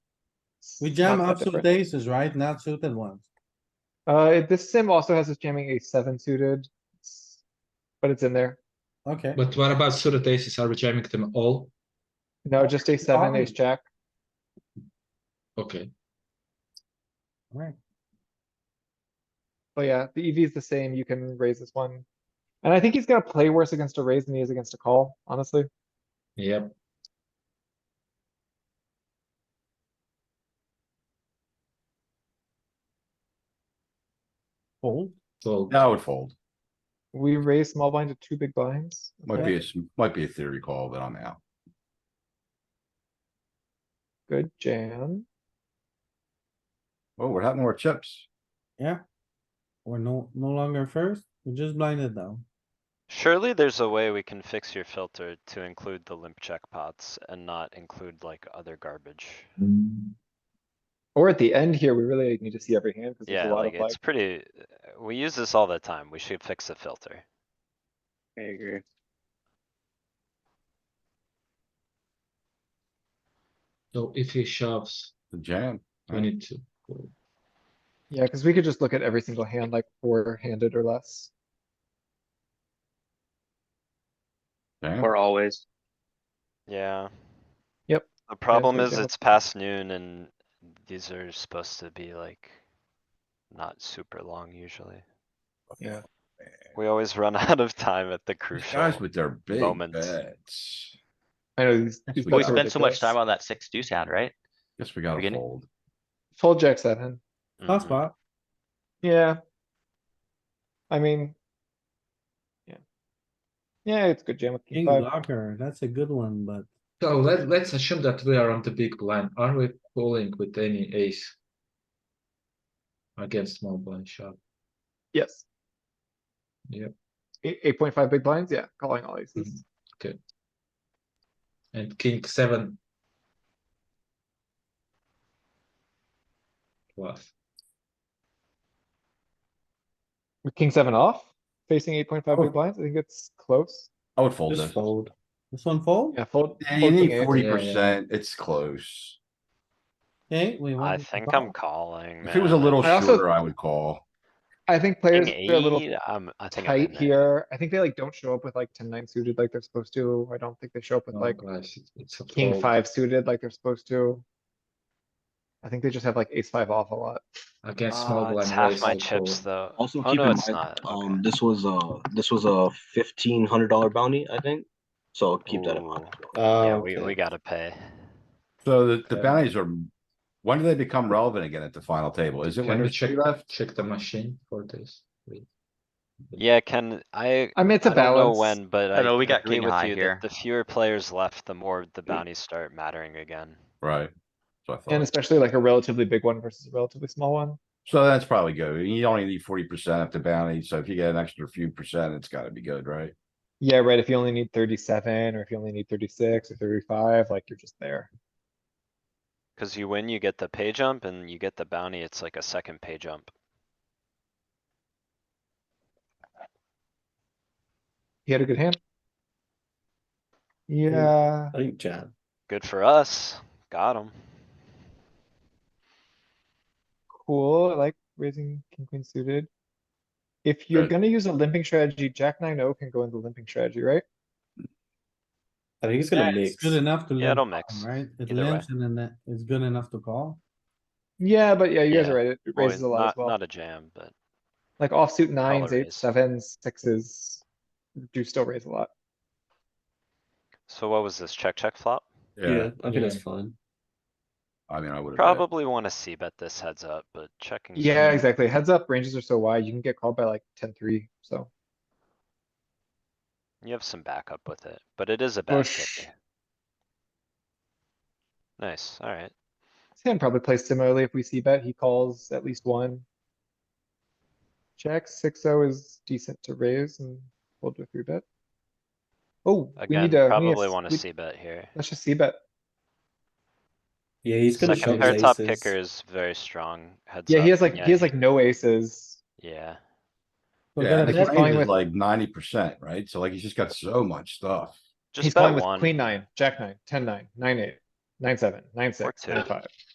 We jam Not that offsuit different. aces, right? Not suited ones. Uh, it- this sim also has us jamming a seven suited. It's- But it's in there. Okay, But what about suited aces? Are we jamming them all? No, just a seven, ace jack. Okay. alright. But yeah, the EV is the same. You can raise this one. And I think he's gonna play worse against a raise than he is against a call, honestly. Yep. Fold. Fold. I would fold. We raise small blind to two big blinds. Might Okay. be, a s- might be a theory call, but I'm out. Good jam. Oh, what happened to our chips? Yeah. We're no, no longer first. We just blinded down. Surely there's a way we can fix your filter to include the limp check pots and not include like other garbage. Or at the end here, we really need to see every hand because there's Yeah, a lot like of like, it's pretty, uh, we use this all the time. We should fix the filter. I agree. So if he shoves, The jam. I need to. fold. yeah, because we could just look at every single hand like four handed or less. Jam. Or always. Yeah. Yep. The problem good is job. it's past noon and these are supposed to be like not super long usually. Yeah. We always run out of time at the These crucial. Guys with their big moments. bets. I know these. these We We bets are spent so much ridiculous. time on that six deuce hand, right? Guess we gotta Beginning. fold. Fold jack seven. Last Mhm. spot. Yeah. I mean. Yeah. Yeah, it's good jam with king King five. blocker. That's a good one, but So let, let's assume that we are on the big blind. Are we calling with any ace? Against small blind shove? Yes. Yep. Eight, eight point five big blinds, yeah, calling all Mm-hmm. aces. And king seven. Plus, With king seven off, facing eight point five Oh. big blinds, I think it's close. I would fold just this. fold. This one fold? Yeah, fold. Yeah, you fold king need eight. forty Yeah, percent. It's close. Okay, we won. I the think call. I'm calling, man. If it was a little I also- shorter, I would call. I think King players are a little eight, I'm, I think I'm in tight there. here. I think they like don't show up with like ten nine suited like they're supposed to. I don't think they show up Oh. with no, like guys, it's- it's a king fold. five suited like they're supposed to. I think they just have like ace five off a lot. Against small Uh, blind. It's half raise, my I chips call. though. Also Oh, keep no, in it's mind, not. Okay. um, this was a, this was a fifteen hundred dollar bounty, I think, so keep that in mind. Ooh. Yeah, Uh, we, we gotta pay. so the, the Okay. bounties are, when do they become relevant again at the final table? Is it when Can we there's three check, left? check the machine for this? please? Yeah, Ken, I, I mean, it's I a don't know balance. when, but I know we I got agree green with high you here. that the fewer players left, the more the bounties start mattering again. Right. So I And thought, especially like a relatively big one versus a relatively small one. so that's probably good. You only need forty percent of the bounty, so if you get an extra few percent, it's gotta be good, right? Yeah, right. If you only need thirty-seven or if you only need thirty-six or thirty-five, like you're just there. Cause you win, you get the pay jump and you get the bounty. It's like a second pay jump. He had a good hand. Yeah, I think jam. Good for us. Got him. cool. I like raising king queen suited. If you're Right. gonna use a limping strategy, jack nine O can go in the limping strategy, right? I think it's Yeah, gonna it's mix. good enough to Yeah, limp, it'll mix. right? It Either way. limps and then that- it's good enough to call. Yeah, but yeah, you guys Yeah. are right. It it Well, raises a lot as not, well. not a jam, but Like offsuit nines, raise. eights, sevens, sixes do still raise a lot. so what was this? Check, check flop? Yeah, I think Yeah. that's fine. I mean, I would. Probably wanna see bet this heads up, but checking. Yeah, some- exactly. Heads up ranges are so wide, you can get called by like ten three, so. You have some backup with it, but it is a bad Bush. kicker. Nice, alright. Sam probably plays similarly. If we see bet, he calls at least one. Jack six oh is decent to raise and fold to a three bet. Oh, we Again, need to. we need probably wanna we- see bet here. Let's just see bet. Yeah, he's gonna Second shove pair his top aces. kicker is very strong. Heads Yeah, he up. has like, Yeah, he has like no aces. Yeah, We're Yeah, gonna and the he's bet range fine is with- like ninety percent, right? So like he's just got so much stuff. just He's calling bet with queen one. nine, jack nine, ten nine, nine eight, nine seven, nine six, two. nine five.